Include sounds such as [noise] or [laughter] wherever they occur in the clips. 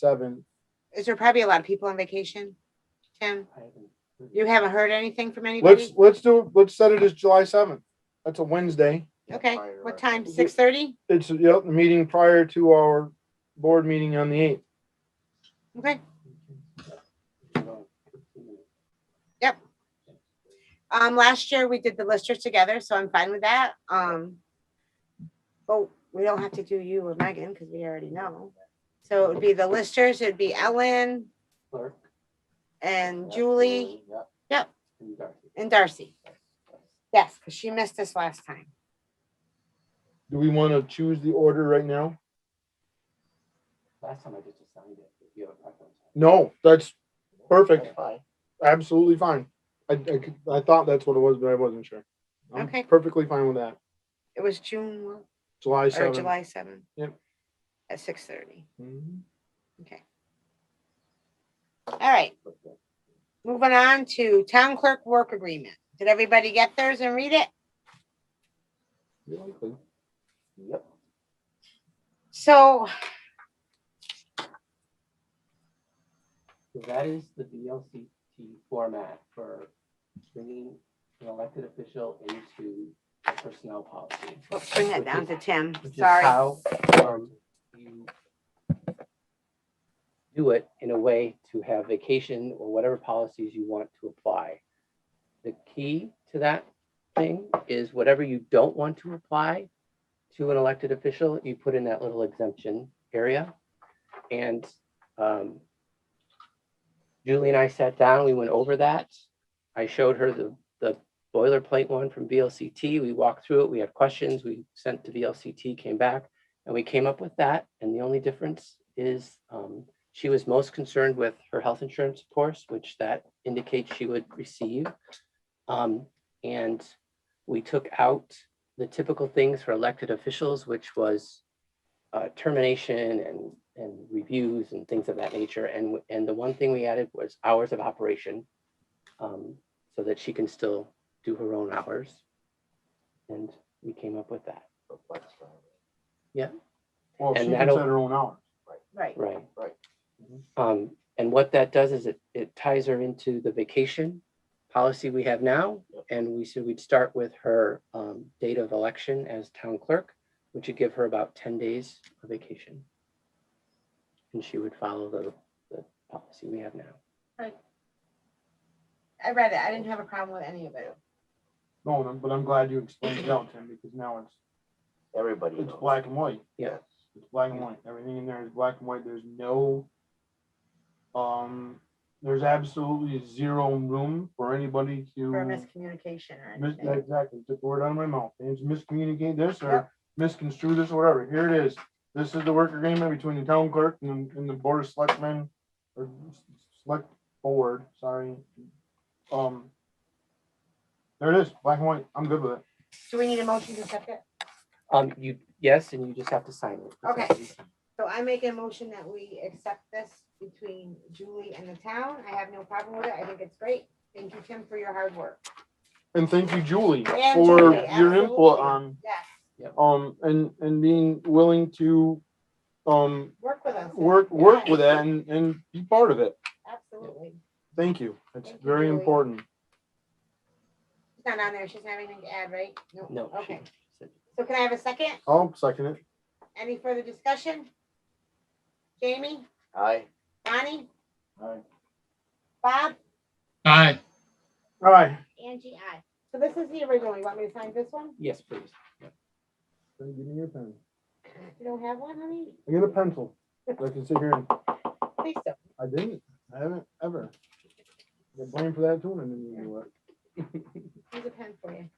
seven. Is there probably a lot of people on vacation? Tim, you haven't heard anything from Let's, anybody? let's do, let's set it as July seventh. That's a Wednesday. Okay, what time? Six thirty? It's, yep, the meeting prior to our board meeting on the eighth. Okay, um, last year we did the listers together, so I'm fine with that. Um. But we don't have to do you or Megan because we already know. So it would be the listers, it'd be Ellen and Julie Yep. and Darcy. Yes, because she missed us last time. Do we want to choose the order right now? Last time I just assigned it, if you have a preference. No, that's perfect. That's fine. Absolutely fine. I, I, could- I thought that's what it was, but I wasn't sure. I'm Okay. Perfectly fine with that. It was June one- July or seventh. July seventh. Yep. At six thirty. Mhm. All right. Moving on to town clerk work agreement. Did everybody get theirs and read it? Yep. So, So that is the VLCT format for bringing an elected official into personnel policy. let's bring that Which down is- to Tim. Which is Sorry. how um, you do it in a way to have vacation or whatever policies you want to apply. The key to that thing is whatever you don't want to apply to an elected official, you put in that little exemption area. And um, Julie and I sat down, we went over that. I showed her the, the boilerplate one from VLCT. We walked through it. We had questions. We sent to VLCT, came back, and we came up with that. And the only difference is um, she was most concerned with her health insurance, of course, which that indicates she would receive. Um, and we took out the typical things for elected officials, which was uh, termination and and reviews and things of that nature. And w- and the one thing we added was hours of operation, um, so that she can still do her own hours. And we came up with that. Well, she And can set that'll- her own hours. Right. Right. Right. Um, and what that does is it, it ties her into the vacation policy we have now. And we said we'd start with her, um, date of election as town clerk, which would give her about ten days of vacation. And she would follow the, the policy we have now. I read it. I didn't have a problem with any of it. No, and I'm- but I'm glad you explained it out, Tim, because now it's, Everybody it's knows. black and white. Yeah. It's black and white. Everything in there is black and white. There's no, um, there's absolutely zero room for anybody to. For miscommunication or Mm. mis- anything. Exactly, took the word out of my mouth. It's miscommunicate this or misconstrue this or whatever. Here it is. This is the work agreement between the town clerk and, and the board of selectmen or s- select board, sorry. Um, there it is, black and white. I'm good with it. Do we need a motion to accept it? Um, you, yes, and you just have to sign it. That's Okay. all you- So I make a motion that we accept this between Julie and the town. I have no problem with it. I think it's great. Thank you, Tim, for your hard work. And thank you, Julie, And for Julie, your input absolutely. on, Yes, um, and, and being willing to, um, work with us. work, work with that and, and be part of it. Absolutely. Thank you. It's Thank you, very Julie. important. She's not on there. She's not having anything to add, right? No. she- Okay. she said- So can I have a second? I'll second it. Any further discussion? Jamie, Aye. Bonnie, Aye. Bob, Aye, All right. Angie, I. So this is the original. You want me to sign this one? Yes, please. Then give me your pen. You don't have one, honey? I get a pencil. so I can sit here and, Please do. I didn't, I haven't ever. Get blamed for that too, and I didn't even do it. Here's a pen for you.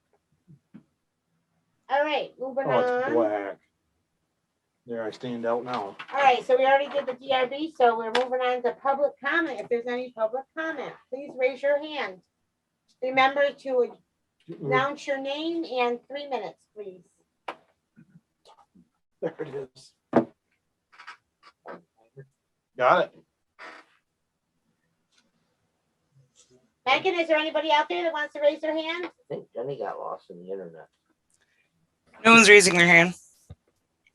All right, moving Oh, it's on. All black. There, I stand out now. right, so we already did the DRB, so we're moving on to public comment. If there's any public comment, please raise your hand. Remember to Mm. announce your name and three minutes, please. [laughs] There it is. Got it. Megan, is there anybody out there that wants to raise their hand? I think Jenny got lost in the internet. No one's raising their hand.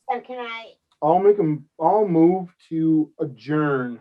And can I I'll make them, I'll move to adjourn.